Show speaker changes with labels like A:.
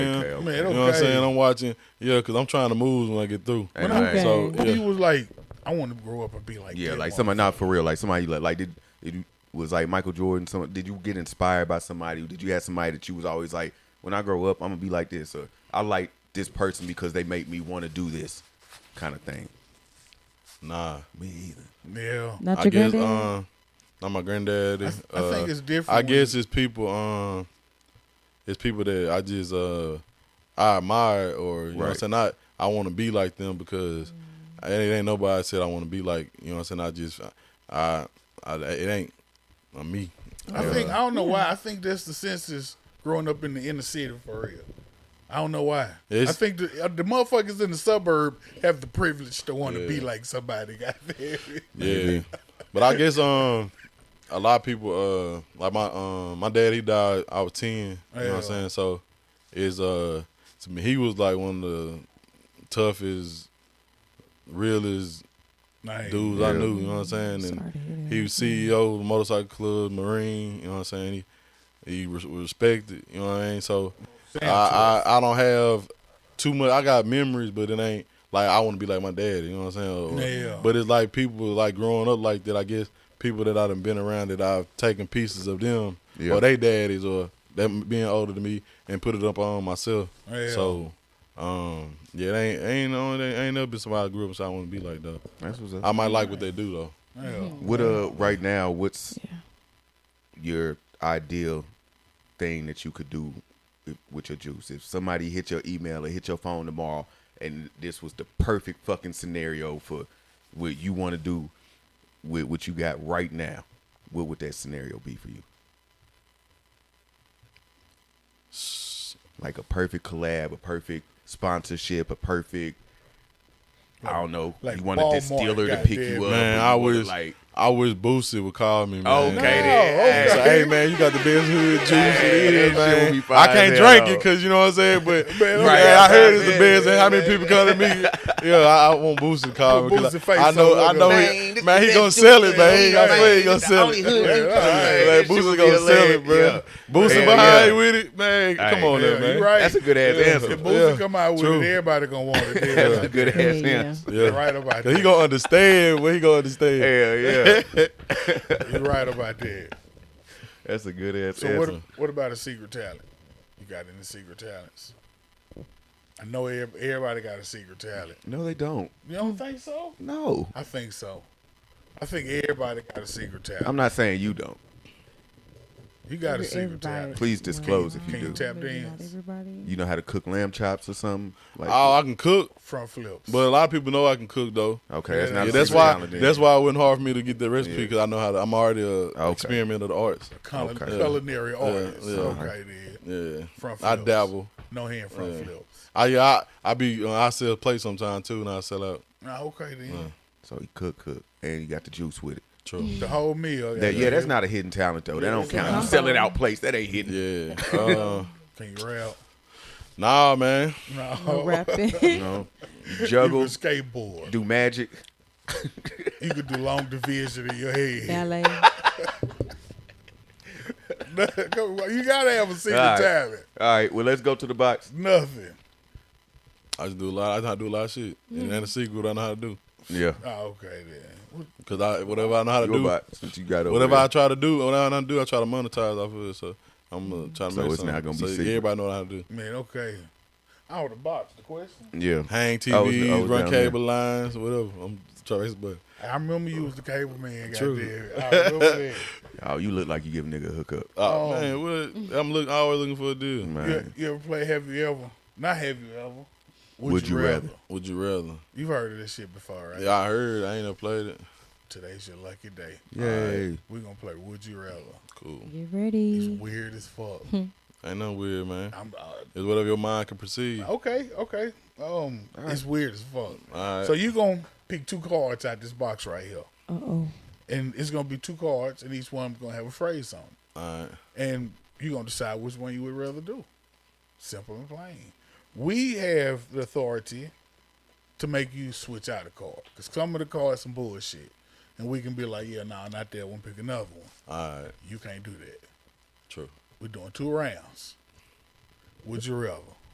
A: man, okay.
B: You know what I'm saying? I'm watching, yeah, because I'm trying to move when I get through.
A: When
C: Exactly.
A: I,
B: So,
A: when
B: yeah.
A: you was like, I want to grow up and be like,
C: Yeah,
A: that
C: like
A: motherfucker.
C: somebody not for real, like somebody like, like did, did you, was like Michael Jordan. Some did you get inspired by somebody? Did you have somebody that you was always like, when I grow up, I'm gonna be like this, or I like this person because they make me want to do this kind of thing.
B: Nah.
C: Me either.
A: Yeah,
D: Not
B: I
D: your
B: guess,
D: granddad.
B: uh, not my granddaddy.
A: I, I
B: Uh,
A: think it's different.
B: I
A: when-
B: guess it's people. Um, it's people that I just uh, I admire, or you know, what I'm
C: Right.
B: saying I I want to be like them because
A: Mm.
B: I- it ain't nobody said I want to be like. You know, what I'm saying I just I, I it ain't uh, me.
A: I think I don't know why. I think that's the census growing up in the inner city for real. I don't know why. I
B: It's-
A: think the, uh, the motherfuckers in the suburb have the privilege to want to be
B: Yeah.
A: like somebody. Goddamn.
B: Yeah, but I guess um, a lot of people uh, like my um, my dad he died. I was ten. You know what
A: Yeah.
B: I'm saying? So, is uh, to me he was like one of the toughest, realest
A: Like,
B: dudes I knew, you know what I'm saying? And
D: Sorry to hear that.
B: he was CEO of the motorcycle club, Marine, you know what I'm saying? He, he was respected, you know what I mean? So I, I, I don't have too much. I got memories, but it ain't like I want to be like my dad, you know what I'm saying? Or-
A: Yeah.
B: But it's like people like growing up like that, I guess people that I done been around that I've taken pieces of them
C: Yeah.
B: or they daddies or them being older than me and put it up on myself.
A: Yeah.
B: So um, yeah, it ain't ain't only ain't never been somebody I grew up with, so I want to be like though.
C: That's what's up.
B: I might like what they do though.
A: yeah.
C: What uh right now, what's
D: Yeah.
C: your ideal thing that you could do if- with your juice? If somebody hit your email or hit your phone tomorrow and this was the perfect fucking scenario for what you want to do with what you got right now, what would that scenario be for you? Like a perfect collab, a perfect sponsorship, a perfect I don't know.
A: like
C: you wanted this
A: Walmart,
C: dealer to pick
A: goddamn.
C: you up.
B: Man,
C: or
B: I
C: you wanted,
B: wish
C: like
B: I wish Boosie would call me, man.
C: Okay, then.
B: Say, hey man, you got the best hood juice it
C: Hey, that shit would
B: is, man.
C: be fine
B: I
C: as
B: can't
C: hell,
B: drink it
C: though.
B: because you know what I'm saying. But man,
C: Right.
B: I heard it's the
C: Yeah,
B: best, and how
C: man.
B: many people come to me? Yeah, I, I want Boosie to call me. 'cause
A: Boosie
B: I,
A: face
B: I know,
A: all
B: I
A: over
B: know,
A: the-
B: man. He, man, he gonna sell it, man. He ain't gonna, he ain't gonna sell it. Like, Boosie gonna sell it, bro. Boosie
C: Hell
B: behind
C: yeah.
B: with it, man.
C: Hey,
B: Come on,
A: Yeah,
B: there, man.
A: you right.
C: That's a good ass
B: Yeah.
C: answer.
A: If Boosie
B: Yeah.
A: come out with
B: True.
A: it, everybody gonna want it.
C: That's
A: Yeah.
C: a good ass
D: Yeah, yeah.
C: answer.
B: Yeah,
A: You're right about
B: 'Cause
A: that.
B: he gonna understand. What he gonna understand?
C: Hell yeah.
A: You're right about that.
C: That's a good ass
A: So
C: answer.
A: what? What about a secret talent? You got any secret talents? I know ev- everybody got a secret talent.
C: no, they don't.
A: You don't think so?
C: No.
A: I think so. I think everybody got a secret talent.
C: I'm not saying you don't.
A: you got a
D: Every-
A: secret
D: everybody.
A: talent.
C: Please disclose if
A: Can
C: you
A: you
C: do.
A: tap
D: Maybe not
A: dance?
D: Everybody.
C: You know how to cook lamb chops or something? Like,
B: Oh, I can cook,
A: Front flips.
B: but a lot of people know I can cook though.
C: okay, that's
A: Yeah,
C: not.
B: Yeah,
C: a
B: that's
C: secret
B: why.
C: talent then.
B: That's why it wasn't hard for me to get the recipe
C: Yeah.
B: because I know how to. I'm already a experiment of the arts.
A: Cul-
C: okay.
A: culinary artist.
B: yeah.
A: Okay, then.
B: Yeah,
A: Front
B: I
A: flips.
B: dabble.
A: No hand front flips.
B: I yeah, I, I be uh, I sell play sometime too, and I sell out.
A: Nah, okay then.
C: So you cook, cook, and you got the juice with it.
B: True.
A: The whole meal.
C: That, yeah, that's not a hidden talent though. That don't count. You sell it out place. That ain't hidden.
B: Yeah. Uh,
A: Can you rap?
B: nah, man.
A: No.
D: No rapping.
C: You know, you
A: You can
C: juggle,
A: skateboard.
C: do magic.
A: You can do long division in your head.
D: Ballet.
A: Come on, you gotta have a secret
C: All right.
A: talent.
C: All right, well let's go to the box.
A: Nothing.
B: I just do a lot. I know how to do a lot of shit, and then the secret I know how to do
C: Yeah,
A: Oh, okay then. What-
B: because I whatever I know how to
C: your
B: do,
C: box. What you got over
B: whatever
C: there.
B: I try to do, whatever I know how to do, I try to monetize off of it. So I'm gonna try to
C: So
B: make
C: it's not
B: something.
C: gonna be
B: so
C: secret.
B: Everybody know how to do.
A: Man, okay. Out of the box, the question.
C: Yeah.
B: Hang TVs,
C: I was- I was
B: run
C: down there.
B: cable lines, whatever. I'm trying to raise the button.
A: I remember you was the cable man.
B: True.
A: Goddamn. I remember that.
C: Oh, you look like you give a nigga a hookup.
B: Oh, man, what? I'm look, always looking for a deal.
C: Man.
A: You, you ever play Have You Ever? Not Have You Ever. Would,
C: Would
A: you,
C: You
A: rather?
C: Rather.
B: Would you rather?
A: You've heard of this shit before, right?
B: Yeah, I heard. I ain't never played it.
A: Today's your lucky day.
C: Yay.
A: We're going to play Would You Rather.
B: Cool.
D: Get
A: It's
D: ready.
A: weird as fuck.
B: Ain't nothing weird, man.
A: I'm, uh,
B: It's whatever your mind can perceive.
A: okay, okay. Um, It's weird as fuck.
B: Alright.
A: So you going to pick two cards out this box right here.
D: Uh oh.
A: And it's going to be two cards, and each one going to have a phrase on it.
B: All right.
A: and you're gonna decide which one you would rather do. Simple and plain. We have the authority to make you switch out a card because some of the cards some bullshit, and we can be like, yeah, nah, not that one. Pick another one.
B: All right.
A: You can't do that.
B: True.
A: We're doing two rounds. Would you rather?